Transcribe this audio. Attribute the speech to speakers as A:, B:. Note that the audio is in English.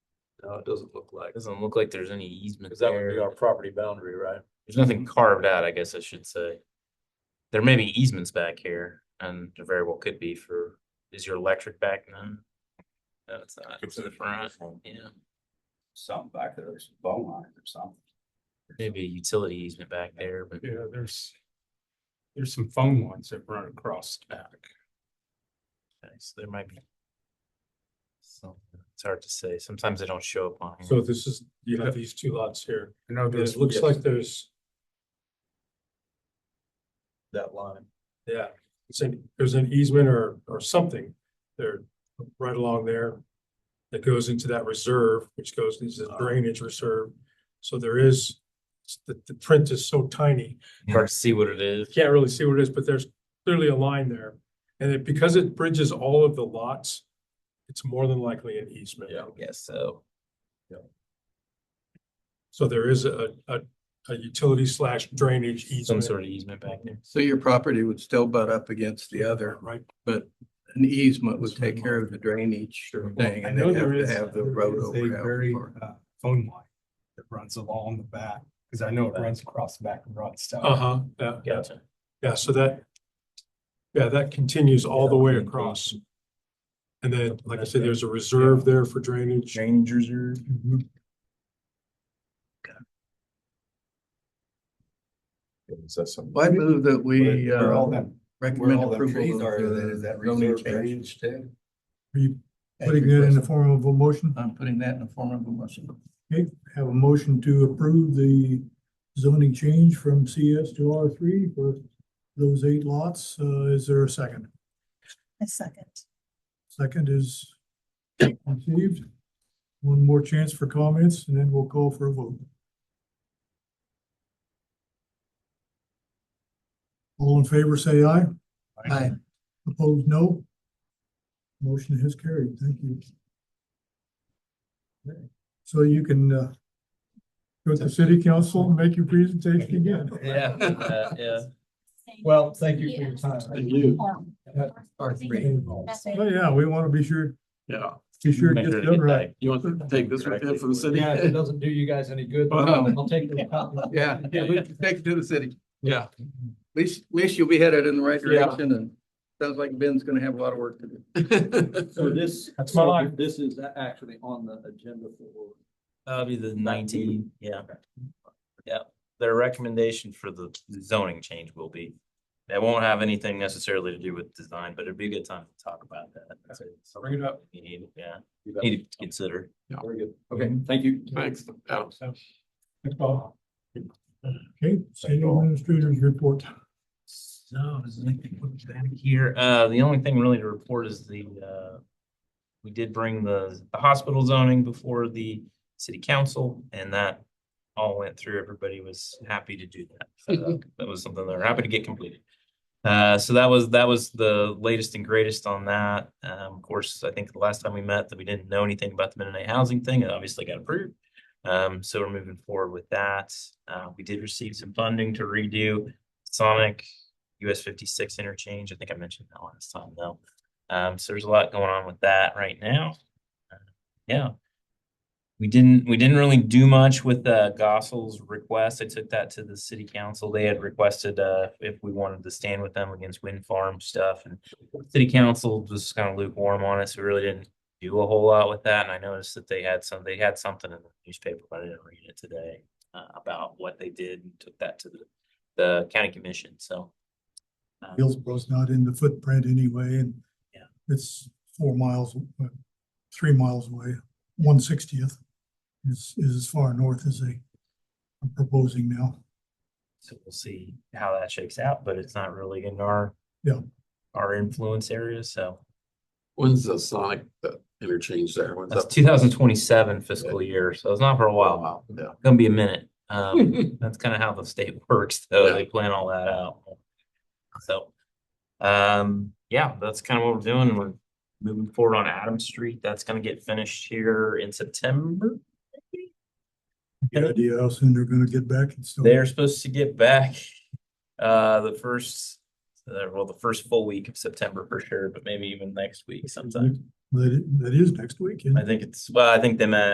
A: No, it doesn't look like.
B: Doesn't look like there's any easement
A: Cause that would be our
B: there.
A: property boundary, right?
B: There's nothing carved out, I guess I should say. There may be easements back here and there very well could be for, is your electric back then? No, it's not. It's in the front. Yeah,
C: Something back there, there's bone lines or something.
B: maybe a utility easement back there, but
D: Yeah, there's, there's some phone lines that run across the back.
B: okay, so there might be. something. It's hard to say. Sometimes they don't show up on. here.
D: So this is, you have these two lots here. I know
A: there's-
D: It looks
A: yes.
D: like there's,
A: That line.
D: yeah, it's an- there's an easement or, or something there, right along there. That goes into that reserve, which goes into
B: Ah.
D: the drainage reserve. So there is, the, the print is so tiny.
B: Hard to see what it is.
D: you can't really see what it is, but there's clearly a line there. And it, because it bridges all of the lots, it's more than likely an easement.
A: Yeah.
B: I guess so.
D: So there is a, a, a utility slash drainage
B: Some
D: easement.
B: sort of easement back there.
E: So your property would still butt up against the other,
D: Right,
E: but an easement would take care of the drainage
D: Sure.
E: thing
F: I
E: and
F: know
E: they'd have
F: there
E: to
F: is,
E: have the
F: there
E: road
F: is
E: over.
F: a very,
E: out for it.
F: uh, phone line that runs along the back, because I know it runs across the back and runs down.
D: uh-huh, yeah, yeah,
B: Gotcha.
D: yeah, so that, yeah, that continues all the way across. And then, like I said, there's a reserve there for drainage.
F: Change reserve.
A: Is that something?
E: Well, I move that we
F: Where all
E: uh,
F: that,
C: Where
E: recommend
C: all them trees
E: approval
C: are,
E: of
C: then is
E: the
C: that
E: zoning
C: reserve drainage
E: change.
C: too?
F: Are you
E: as
F: putting that in the
E: requested.
F: form of a motion?
E: I'm putting that in the form of a motion.
F: Okay, have a motion to approve the zoning change from CS to R three for those eight lots. Uh, is there a second?
G: A second.
F: Second is received. One more chance for comments and then we'll call for a vote. All in favor, say aye.
E: Aye.
F: Opposed, no. Motion has carried. Thank you. So you can uh, go to city council and make your presentation again.
B: Yeah, uh, yeah.
H: Well, thank you for your time.
E: Thank you.
H: Or
E: R
H: three.
E: three.
F: Oh, yeah, we want to be sure,
E: Yeah.
F: be sure it
B: Make sure
F: gets
B: to
F: done
B: get
F: right.
B: that
E: You want to take this with you for the city?
H: Yeah, if it doesn't do you guys any good,
B: Uh-huh.
E: Wow.
H: I'll take the copy.
E: Yeah, yeah, we can take it to the city.
F: Yeah.
E: Least, least you'll be headed in the right
F: Yeah.
E: direction and sounds like Ben's gonna have a lot of work to do.
C: So this,
D: That's my
C: so
D: line.
C: this is a- actually on the agenda for.
B: That'd be the nineteen, yeah. Yeah, their recommendation for the zoning change will be, that won't have anything necessarily to do with design, but it'd be a good time to talk about that. That's it.
D: Bring it up.
B: You need- Yeah,
C: You bet.
B: need to consider.
C: Very good. Okay, thank you.
E: Thanks.
D: Thanks, Bob.
F: Okay, city administrators report.
B: So, is anything back here? Uh, the only thing really to report is the, uh, we did bring the, the hospital zoning before the city council and that all went through. Everybody was happy to do that. So That was something they were happy to get completed. Uh, so that was, that was the latest and greatest on that. Um, of course, I think the last time we met that we didn't know anything about the Mennonite housing thing, it obviously got approved. Um, so we're moving forward with that. Uh, we did receive some funding to redo Sonic US fifty-six interchange. I think I mentioned that last time though. Um, so there's a lot going on with that right now. Uh, Yeah. We didn't, we didn't really do much with, uh, Gossel's request. I took that to the city council. They had requested, uh, if we wanted to stand with them against wind farm stuff and city council was kind of lukewarm on it. So we really didn't do a whole lot with that. And I noticed that they had some, they had something in the newspaper, but I didn't read it today uh, about what they did and took that to the, the county commission. So. um,
F: Hillsborough's not in the footprint anyway, and
B: Yeah.
F: it's four miles, uh, three miles away. One sixtieth is, is as far north as they are proposing now.
B: So we'll see how that shakes out, but it's not really in our.
F: Yeah.
B: Our influence area, so
I: When's the Sonic uh, interchange there? When's
B: that's
I: that?
B: two thousand twenty-seven fiscal year, so it's not for a while,
I: Wow, yeah.
B: gonna be a minute. Um, that's kind of how the state works, though, they plan all that out. So, um, yeah, that's kind of what we're doing, we're moving forward on Adams Street, that's gonna get finished here in September.
F: Any idea how soon they're gonna get back and still.
B: They're supposed to get back uh the first, uh, well, the first full week of September for sure, but maybe even next week sometime.
F: That, i- that is next week, isn't it?
B: I think it's, well, I think they meant